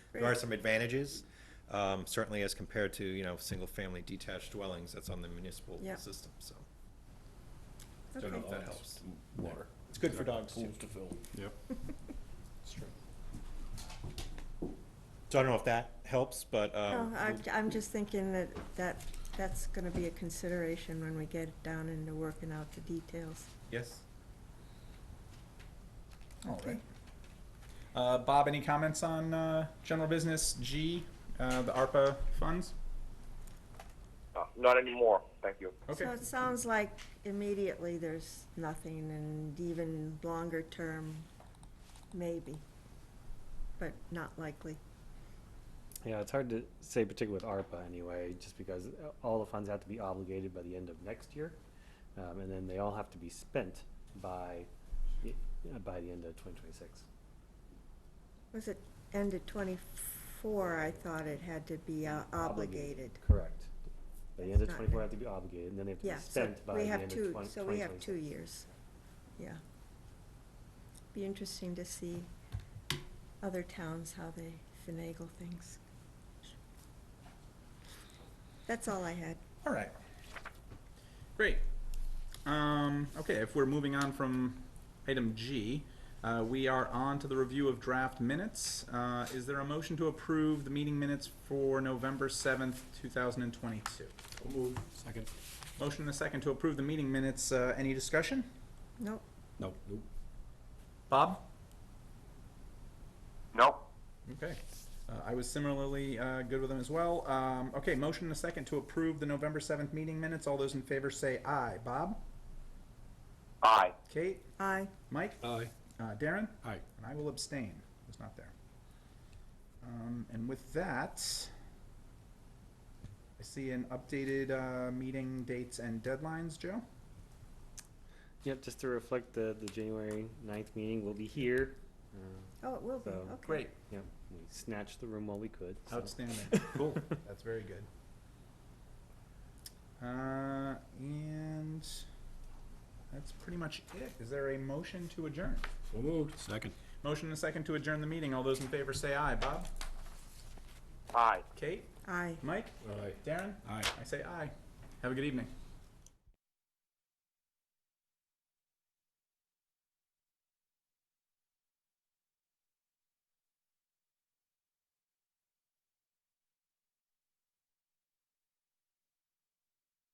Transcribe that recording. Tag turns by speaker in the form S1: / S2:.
S1: There are some advantages, um, certainly as compared to, you know, single-family detached dwellings that's on the municipal
S2: Yeah.
S1: system, so. Don't know
S2: Okay.
S1: if that helps.
S3: Water.
S1: It's good for dogs, too.
S3: Pools to fill.
S4: Yep.
S1: It's true. So I don't know if that helps, but,
S2: No,
S1: um,
S2: I'm, I'm just thinking that, that, that's gonna be a consideration when we get down into working out the details.
S1: yes?
S5: All right. Uh, Bob, any comments on uh, general business G, uh, the ARPA funds?
S6: Uh, Not anymore, thank you.
S5: Okay.
S2: So it sounds like immediately there's nothing and even longer term, maybe, but not likely.
S7: Yeah, it's hard to say, particularly with ARPA anyway, just because uh, all the funds have to be obligated by the end of next year. Um, and then they all have to be spent by, the- uh, by the end of twenty twenty-six.
S2: Was it end of twenty-four, I thought it had to be uh, obligated.
S7: Correct. By the end
S2: It's
S7: of
S2: not
S7: twenty-four,
S2: there.
S7: have to be obligated, and then they have to
S2: Yeah,
S7: be
S2: so
S7: spent by
S2: we
S7: the end
S2: have
S7: of
S2: two,
S7: twenty,
S2: so we have two years, yeah. Be interesting to see other towns, how they finagle things. That's all I had.
S5: All right.
S4: Great.
S5: Um, okay, if we're moving on from item G, uh, we are on to the review of draft minutes. Uh, is there a motion to approve the meeting minutes for November seventh, two thousand and twenty-two?
S3: Move.
S4: Second.
S5: Motion and a second to approve the meeting minutes. Uh, any discussion?
S2: Nope,
S4: Nope. Nope.
S5: Bob?
S6: No?
S5: Okay. Uh, I was similarly uh, good with them as well. Um, okay, motion and a second to approve the November seventh meeting minutes. All those in favor say aye. Bob?
S6: Aye.
S5: Kate?
S2: aye,
S5: Mike?
S4: Aye.
S5: Uh, Darren?
S4: Aye.
S5: And I will abstain. I was not there. Um, and with that, I see an updated uh, meeting dates and deadlines, Joe.
S7: Yep, just to reflect the, the January ninth meeting, we'll be here. Uh,
S2: oh, it will be,
S7: So,
S2: okay.
S7: Yep, we snatched the room while we could, so.
S5: Outstanding. cool. That's very good. Uh, and that's pretty much it. Is there a motion to adjourn?
S4: So moved. Second.
S5: Motion and a second to adjourn the meeting. All those in favor say aye. Bob?
S6: Aye.
S5: Kate?
S2: Aye.
S5: Mike?
S4: Aye.
S5: Darren?
S4: Aye.
S5: I say aye. Have a good evening.